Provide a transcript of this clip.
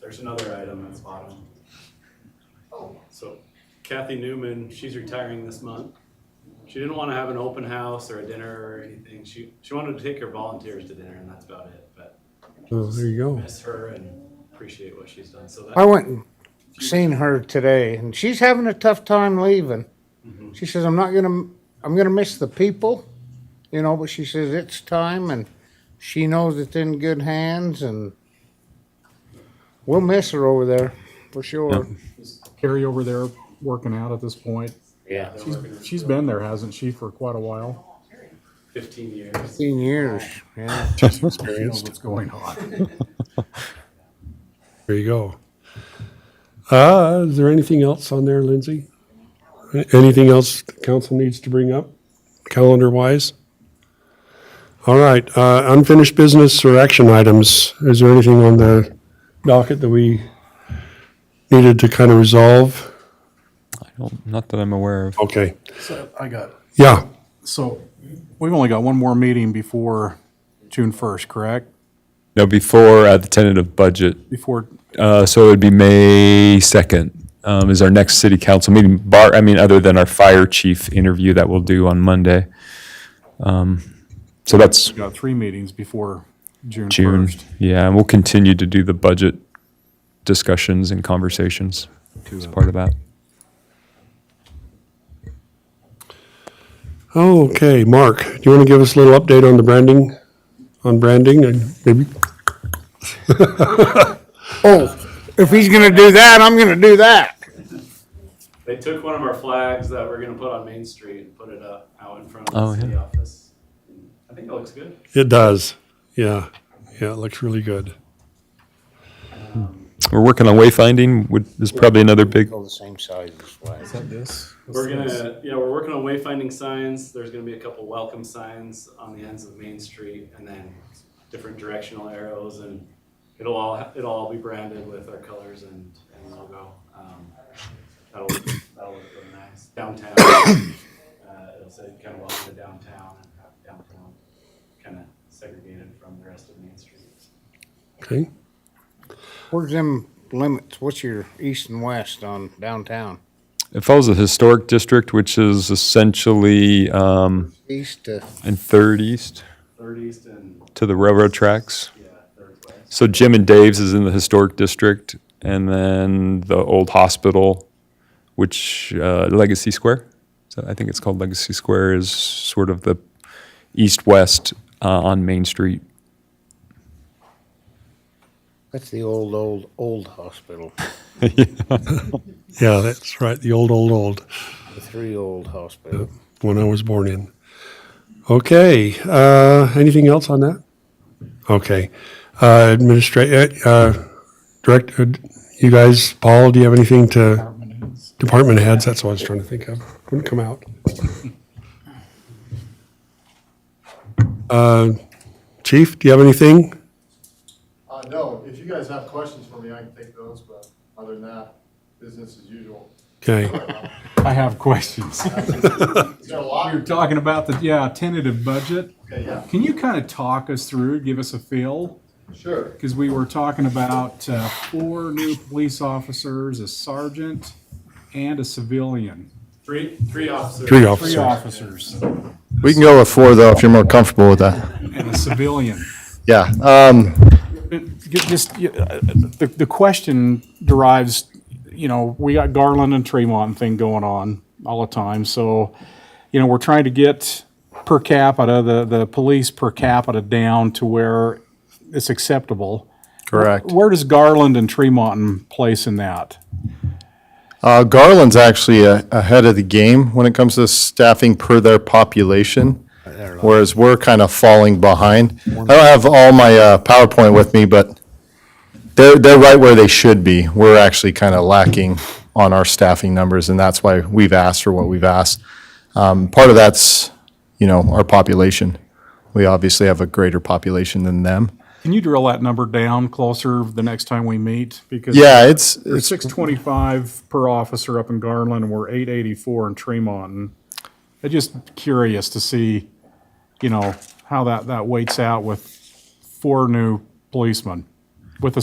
There's another item at the bottom. Oh. So Kathy Newman, she's retiring this month. She didn't wanna have an open house or a dinner or anything. She, she wanted to take her volunteers to dinner and that's about it, but Oh, there you go. miss her and appreciate what she's done, so I that. went and seen her today, and she's having a tough time leaving. Mhm. She says, "I'm not gonna, I'm gonna miss the people," you know. But she says it's time, and she knows it's in good hands, and we'll miss her over there for sure. Carrie over there working out at this point. Yeah, they're She's, working she's for been there, hasn't she, for quite a while? Fifteen years. fifteen years. Yeah, She's experienced what's going on. There you go. Uh, is there anything else on there, Lindsay? Anything else the council needs to bring up, calendar wise? All right, uh, unfinished business or action items. Is there anything on the docket that we needed to kind of resolve? I don't, not that I'm aware of. Okay, So I got, yeah, so we've only got one more meeting before June first, correct? No, before uh, the tentative budget. Before, Uh, so it would be May 2nd um, is our next city council meeting, bar, I mean, other than our fire chief interview that we'll do on Monday. Um, so that's we got three meetings before June June. first. Yeah, and we'll continue to do the budget discussions and conversations as part of that. okay, Mark, do you want to give us a little update on the branding, on branding and maybe? Oh, if he's gonna do that, I'm gonna do that. They took one of our flags that we're gonna put on Main Street and put it up out in front Oh, of yeah. the city office. I think it looks good. It does, yeah, yeah, it looks really good. We're working on wayfinding, which is probably another big, All the same size as flags. We're gonna, yeah, we're working on wayfinding signs. There's gonna be a couple welcome signs on the ends of Main Street and then different directional arrows and it'll all, it'll all be branded with our colors and, and logo. Um, That'll, that'll look really nice. Downtown, uh, it'll say kind of welcome to downtown and have downtown kind of segregated from the rest of Main Street. Okay, Where's them limits? What's your east and west on downtown? it follows the historic district, which is essentially um, East to in Third East Third East and, to the railroad tracks. yeah, Third West. So Jim and Dave's is in the historic district, and then the old hospital, which uh, Legacy Square, so I think it's called Legacy Square, is sort of the east-west uh, on Main Street. that's the old, old, old hospital. yeah, that's right, the old, old, old. The three old hospital. when I was born in. Okay, uh, anything else on that? Okay, uh, administrator, uh, director, you guys, Paul, do you have anything to? Department heads, that's what I was trying to think of, wouldn't come out. Uh, chief, do you have anything? Uh, no, if you guys have questions for me, I can take those, but other than that, business as usual. Okay, I have questions. Is there a lot? You're talking about the, yeah, tentative budget. Okay, yeah, Can you kind of talk us through, give us a feel? sure. Because we were talking about uh, four new police officers, a sergeant and a civilian. Three, three officers. three Three officers. officers. We can go with four though, if you're more comfortable with that. and a civilian. Yeah, um, Just, y- uh, the, the question derives, you know, we got Garland and Tremont thing going on all the time, so, you know, we're trying to get per capita, the, the police per capita down to where it's acceptable. correct. Where does Garland and Tremont place in that? Uh, Garland's actually a- ahead of the game when it comes to staffing per their population, whereas we're kind of falling behind. I don't have all my, uh, PowerPoint with me, but they're, they're right where they should be. We're actually kind of lacking on our staffing numbers, and that's why we've asked for what we've asked. Um, part of that's, you know, our population. We obviously have a greater population than them. Can you drill that number down closer the next time we meet? Because Yeah, it's, We're it's six twenty-five per officer up in Garland, and we're eight eighty-four in Tremont. I'm just curious to see, you know, how that, that weights out with four new policemen with a